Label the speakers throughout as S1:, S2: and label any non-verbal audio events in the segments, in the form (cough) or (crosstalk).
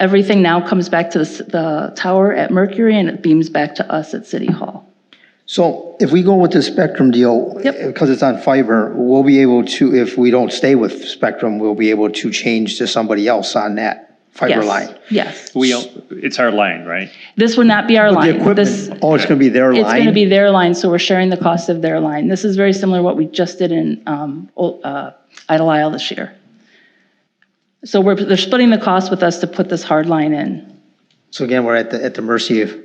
S1: Everything now comes back to the s- the tower at Mercury and it beams back to us at City Hall.
S2: So if we go with the Spectrum deal,
S1: Yep.
S2: because it's on fiber, we'll be able to, if we don't stay with Spectrum, we'll be able to change to somebody else on that fiber
S1: Yes,
S2: line.
S1: Yes.
S3: We, own- it's our line, right?
S1: This would not be our
S2: The
S1: line. This,
S2: equipment, oh, it's going to be their line?
S1: it's going to be their line, so we're sharing the cost of their line. This is very similar to what we just did in um, Ol- uh, Idle Isle this year. So we're, they're splitting the cost with us to put this hard line in.
S2: So again, we're at the, at the mercy of,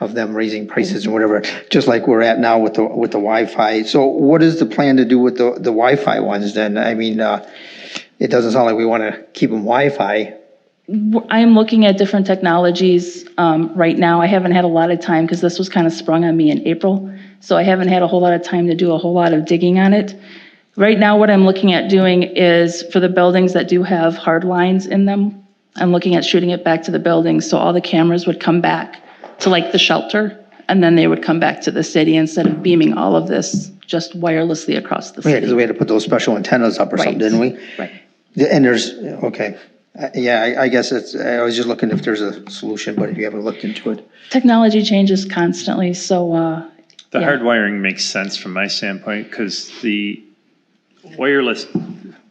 S2: of them raising prices
S1: Mm-hmm.
S2: and whatever, just like we're at now with the, with the Wi-Fi. So what is the plan to do with the, the Wi-Fi ones then? I mean, uh, it doesn't sound like we want to keep them Wi-Fi.
S1: I am looking at different technologies um, right now. I haven't had a lot of time because this was kind of sprung on me in April. So I haven't had a whole lot of time to do a whole lot of digging on it. Right now, what I'm looking at doing is for the buildings that do have hard lines in them, I'm looking at shooting it back to the buildings so all the cameras would come back to like the shelter and then they would come back to the city instead of beaming all of this just wirelessly across the
S2: Yeah, because
S1: city.
S2: we had to put those special antennas up or something,
S1: Right.
S2: didn't we?
S1: Right.
S2: The- And there's, okay, Uh, yeah, I, I guess it's, I was just looking if there's a solution, but if you haven't looked into it.
S1: Technology changes constantly, so uh,
S3: The
S1: Yeah.
S3: hardwiring makes sense from my standpoint because the wireless,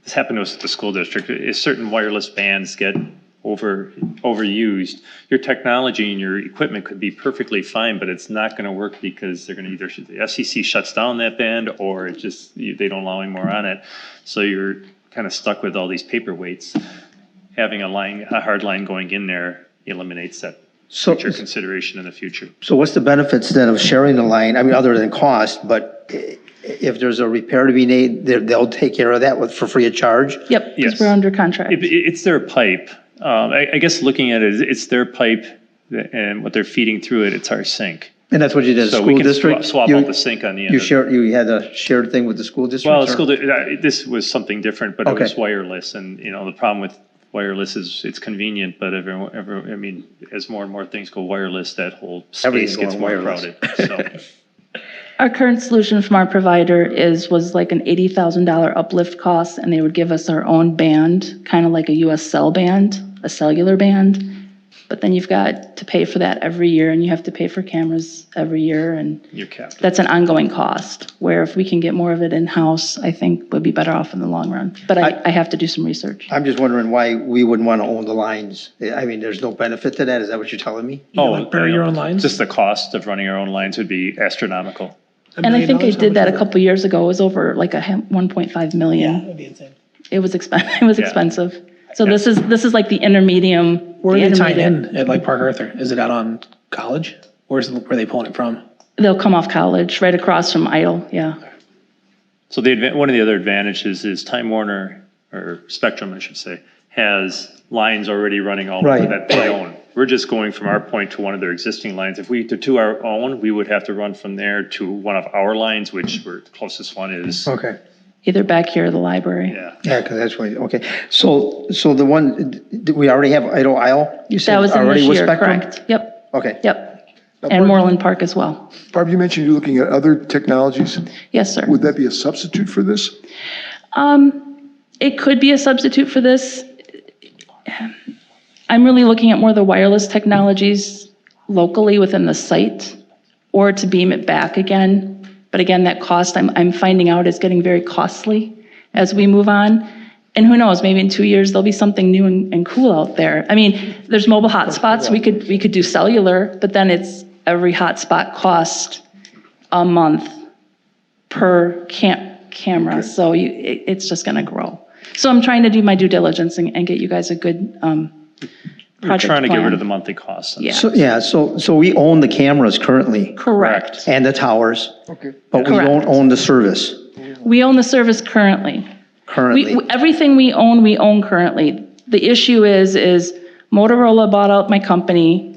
S3: this happened to us at the school district, if certain wireless bands get over, overused, your technology and your equipment could be perfectly fine, but it's not going to work because they're going to either, the FCC shuts down that band or it just, you- they don't allow any more on it. So you're kind of stuck with all these paperweights. Having a line, a hard line going in there eliminates that
S2: So,
S3: future consideration in the future.
S2: so what's the benefits then of sharing the line? I mean, other than cost, but i- if there's a repair to be made, they're- they'll take care of that with, for free of charge?
S1: yep, because
S3: Yes.
S1: we're under contract.
S3: It, it- it's their pipe. Um, I, I guess looking at it, it's their pipe that- and what they're feeding through it, it's our sink.
S2: And that's what you did, at
S3: So
S2: school
S3: we can
S2: district?
S3: swap, swap
S2: You-
S3: out the sink on the end.
S2: You
S3: of it.
S2: shared, you had a shared thing with the school district?
S3: Well,
S2: or-
S3: school, di- uh, this was something different, but it
S2: Okay.
S3: was wireless and, you know, the problem with wireless is it's convenient, but everyone, ever, I mean, as more and more things go wireless, that whole
S2: Everything's
S3: space gets
S2: going
S3: more
S2: wireless.
S3: crowded. So
S2: (laughs)
S1: Our current solution from our provider is, was like an $80,000 uplift cost, and they would give us our own band, kind of like a US cell band, a cellular band. But then you've got to pay for that every year, and you have to pay for cameras every year, and
S3: you're capped.
S1: that's an ongoing cost, where if we can get more of it in-house, I think we'd be better off in the long run. But I, I have to do some research.
S2: I'm just wondering why we wouldn't want to own the lines. I mean, there's no benefit to that, is that what you're telling me?
S3: Oh,
S4: like bury
S3: yeah.
S4: your own lines?
S3: Just the cost of running our own lines would be astronomical.
S1: And I think I
S4: I
S1: did that a couple years ago, it was over like a hem- 1.5 million.
S4: That'd be insane.
S1: It was expensive, (laughs) it was
S3: Yeah.
S1: expensive. So this is, this is like the intermedium.
S4: Where
S1: the
S4: are they tied
S1: intermediate.
S4: in at like Park Arthur? Is it out on college? Where's, where are they pulling it from?
S1: They'll come off college, right across from Idle, yeah.
S3: So the advan- one of the other advantages is Time Warner or Spectrum, I should say, has lines already running all over
S2: Right,
S3: that they own. We're just going from our point to one of their existing lines. If we to, to our own, we would have to run from there to one of our lines, which we're, the closest one is.
S2: Okay.
S1: Either back here or the library.
S3: Yeah.
S2: Yeah, because that's what, okay. So, so the one, did we already have Idle Isle? You said
S1: That was in
S2: already
S1: this
S2: with
S1: year,
S2: Spectrum?
S1: correct? Yep,
S2: Okay.
S1: yep. And Moreland Park as well.
S5: Barb, you mentioned you're looking at other technologies.
S1: Yes, sir.
S5: Would that be a substitute for this?
S1: Um, It could be a substitute for this. I'm really looking at more of the wireless technologies locally within the site or to beam it back again. But again, that cost, I'm, I'm finding out is getting very costly as we move on. And who knows, maybe in two years, there'll be something new and, and cool out there. I mean, there's mobile hotspots, we could, we could do cellular, but then it's every hotspot cost a month per cam, camera, so you, it, it's just gonna grow. So I'm trying to do my due diligence and, and get you guys a good, um,
S3: We're
S1: project
S3: trying to get rid
S1: plan.
S3: of the monthly costs. on
S1: Yeah.
S3: this.
S2: So, yeah, so, so we own the cameras currently
S1: Correct.
S2: and the towers,
S5: Okay.
S2: but we don't
S1: Correct.
S2: own the service
S1: We own the service currently. We,
S2: currently.
S1: we- everything we own, we own currently. The issue is, is Motorola bought out my company.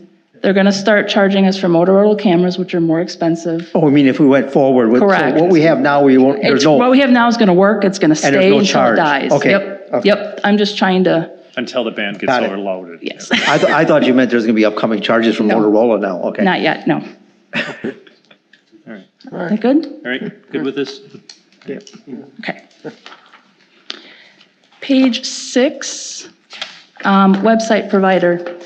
S1: They're gonna start charging us for Motorola cameras, which are more expensive.
S2: Oh, I mean, if we went forward with, so
S1: Correct.
S2: what we have now, we won't, there's
S1: It's-
S2: no.
S1: What we have now is gonna work, it's gonna
S2: there's
S1: stay
S2: no
S1: until
S2: charge.
S1: it dies.
S2: Okay.
S1: Yep,
S2: Okay.
S1: yep, I'm just trying to,
S3: Until the band gets
S2: Got it.
S3: overloaded.
S1: yes,
S2: (laughs) I, th- I thought you meant there's going to be upcoming charges from Motorola now,
S1: (laughs)
S2: okay?
S1: not yet, no.
S3: All right.
S1: That good?
S3: All right. Good with this?
S1: Okay. Page six, um, website provider.